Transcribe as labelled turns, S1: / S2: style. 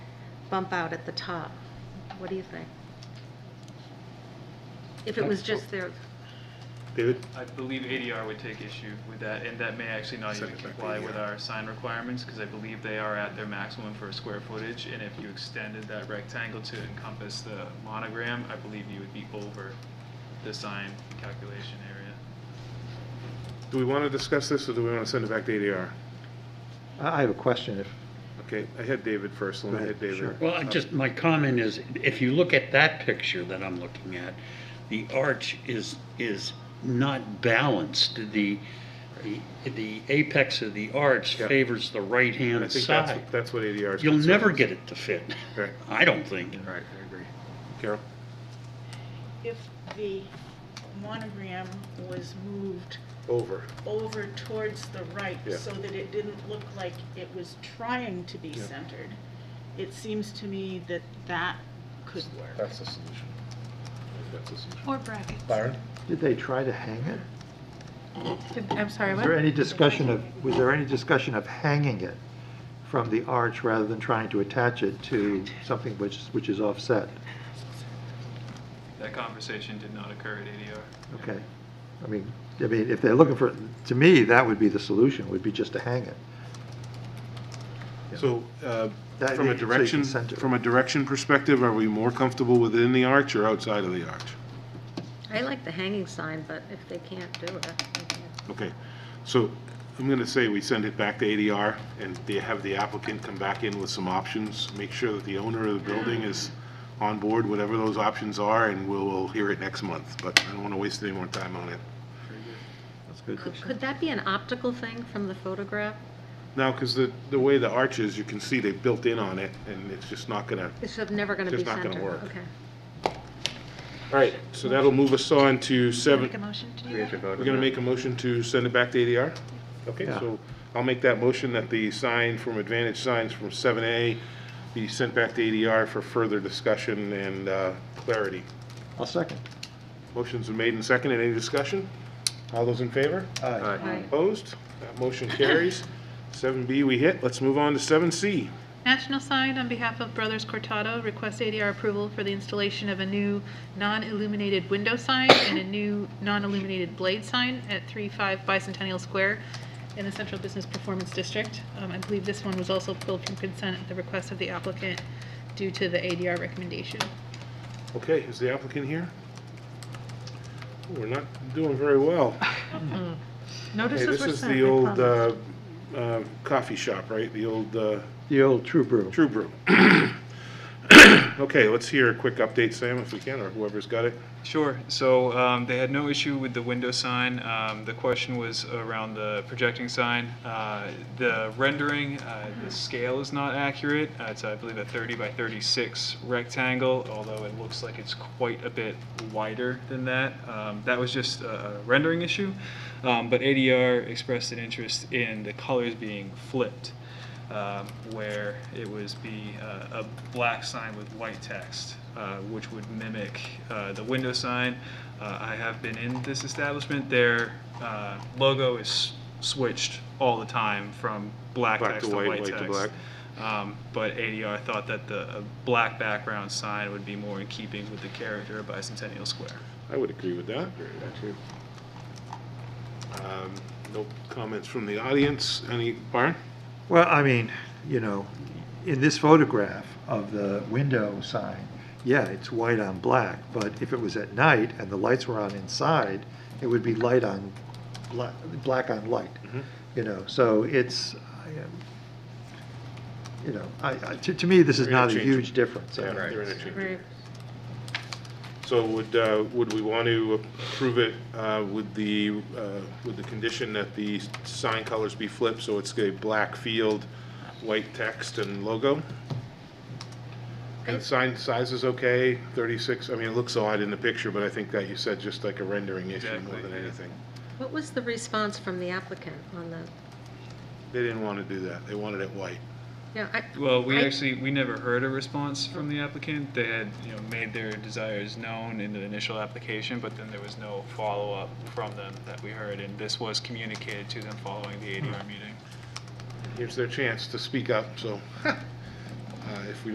S1: bump out at the top. What do you think? If it was just there,
S2: David?
S3: I believe ADR would take issue with that, and that may actually not
S2: Send
S3: even
S2: it back to
S3: comply with
S2: ADR.
S3: our sign requirements, because I believe they are at their maximum for square footage, and if you extended that rectangle to encompass the monogram, I believe you would be over the sign calculation area.
S2: Do we want to discuss this, or do we want to send it back to ADR?
S4: I I have a question, if,
S2: Okay, I had David first, let me
S4: Go
S2: hit
S4: ahead,
S2: David.
S4: sure.
S5: Well, I just, my comment is, if you look at that picture that I'm looking at, the arch is, is not balanced. The, the, the apex of the arch
S2: Yeah.
S5: favors the
S2: And I
S5: right-hand
S2: think that's,
S5: side.
S2: that's what ADR is.
S5: You'll
S2: concerned
S5: never
S2: with.
S5: get it to fit,
S2: Right.
S5: I don't think.
S2: Right, I agree. Carol?
S6: if the monogram was moved
S2: Over.
S6: over towards the right
S2: Yeah.
S6: so that it didn't look like it was trying to be
S2: Yeah.
S6: centered, it seems to me that that could work.
S2: That's the solution. That's the solution.
S7: Or brackets.
S2: Byron?
S4: did they try to hang it?
S7: I'm sorry,
S4: Was there
S7: what?
S4: any discussion of, was there any discussion of hanging it from the arch rather than trying to attach it to something which, which is offset?
S3: That conversation did not occur at ADR.
S4: Okay. I mean, I mean, if they're looking for, to me, that would be the solution, would be just to hang it.
S2: So, uh,
S4: That-
S2: from
S4: so
S2: a
S4: you can
S2: direction,
S4: center.
S2: from a direction perspective, are we more comfortable within the arch or outside of the arch?
S1: I like the hanging sign, but if they can't do it, they can't.
S2: Okay, so I'm going to say we send it back to ADR and they have the applicant come back in with some options, make sure that the owner of the building is on board, whatever those options are, and we'll, we'll hear it next month, but I don't want to waste any more time on it.
S4: That's good.
S1: Could- Could that be an optical thing from the photograph?
S2: Now, because the, the way the arch is, you can see they built in on it and it's just not going to,
S1: It's just never going to be
S2: Just
S1: centered.
S2: not gonna work.
S1: Okay.
S2: all right, so that'll move us on to seven.
S7: Make a motion to do
S4: We
S7: that?
S4: have to vote on
S2: We're going to
S4: that.
S2: make a motion to send it back to ADR? Okay,
S4: Yeah.
S2: so I'll make that motion that the sign from Advantage Signs from 7A be sent back to ADR for further discussion and uh, clarity.
S4: I'll second.
S2: Motion's been made and seconded. Any discussion? All those in favor?
S4: Aye.
S1: Aye.
S2: Opposed? That motion carries. 7B we hit. Let's move on to 7C.
S7: National Sign, on behalf of Brothers Cortado, requests ADR approval for the installation of a new non-illuminated window sign and a new non-illuminated blade sign at 35 Bicentennial Square in the Central Business Performance District. Um, I believe this one was also pulled from consent at the request of the applicant due to the ADR recommendation.
S2: Okay, is the applicant here? We're not doing very well. Hey,
S7: Notices
S2: this is the old uh, uh, coffee shop, right? The old uh,
S4: The old true brew.
S2: True Brew. Okay, let's hear a quick update, Sam, if we can, or whoever's got it.
S3: Sure. So um, they had no issue with the window sign. Um, the question was around the projecting sign. Uh, the rendering, uh, the scale is not accurate. Uh, it's, I believe, a 30 by 36 rectangle, although it looks like it's quite a bit wider than that. Um, that was just a, a rendering issue. Um, but ADR expressed an interest in the colors being flipped um, where it was be uh, a black sign with white text, uh, which would mimic uh, the window sign. Uh, I have been in this establishment. Their uh, logo is switched all the time from black
S2: Black to
S3: text to
S2: white,
S3: white,
S2: white to
S3: text.
S2: black.
S3: Um, but ADR thought that the a black background sign would be more in keeping with the character of Bicentennial Square.
S2: I would agree with that. Um, No comments from the audience. Any, Byron?
S4: Well, I mean, you know, in this photograph of the window sign, yeah, it's white on black, but if it was at night and the lights were on inside, it would be light on, black, black on light, you know, so it's, I, um, you know, I, I- to, to me, this is not a
S2: Interchangeable.
S4: huge difference. I
S2: Yeah,
S4: mean,
S2: they're interchangeable.
S1: Very-
S2: So would, uh, would we want to approve it uh, with the, uh, with the condition that the sign colors be flipped, so it's a black field, white text and logo? And the sign size is okay, 36, I mean, it looks odd in the picture, but I think that you said just like a rendering issue more
S3: Exactly,
S2: than
S3: yeah.
S2: anything.
S1: What was the response from the applicant on the,
S2: They didn't want to do that, they wanted it white.
S1: yeah, I,
S3: Well, we
S1: I-
S3: actually, we never heard a response from the applicant. They had, you know, made their desires known in the initial application, but then there was no follow-up from them that we heard, and this was communicated to them following the ADR meeting.
S2: Here's their chance to speak up, so uh, if we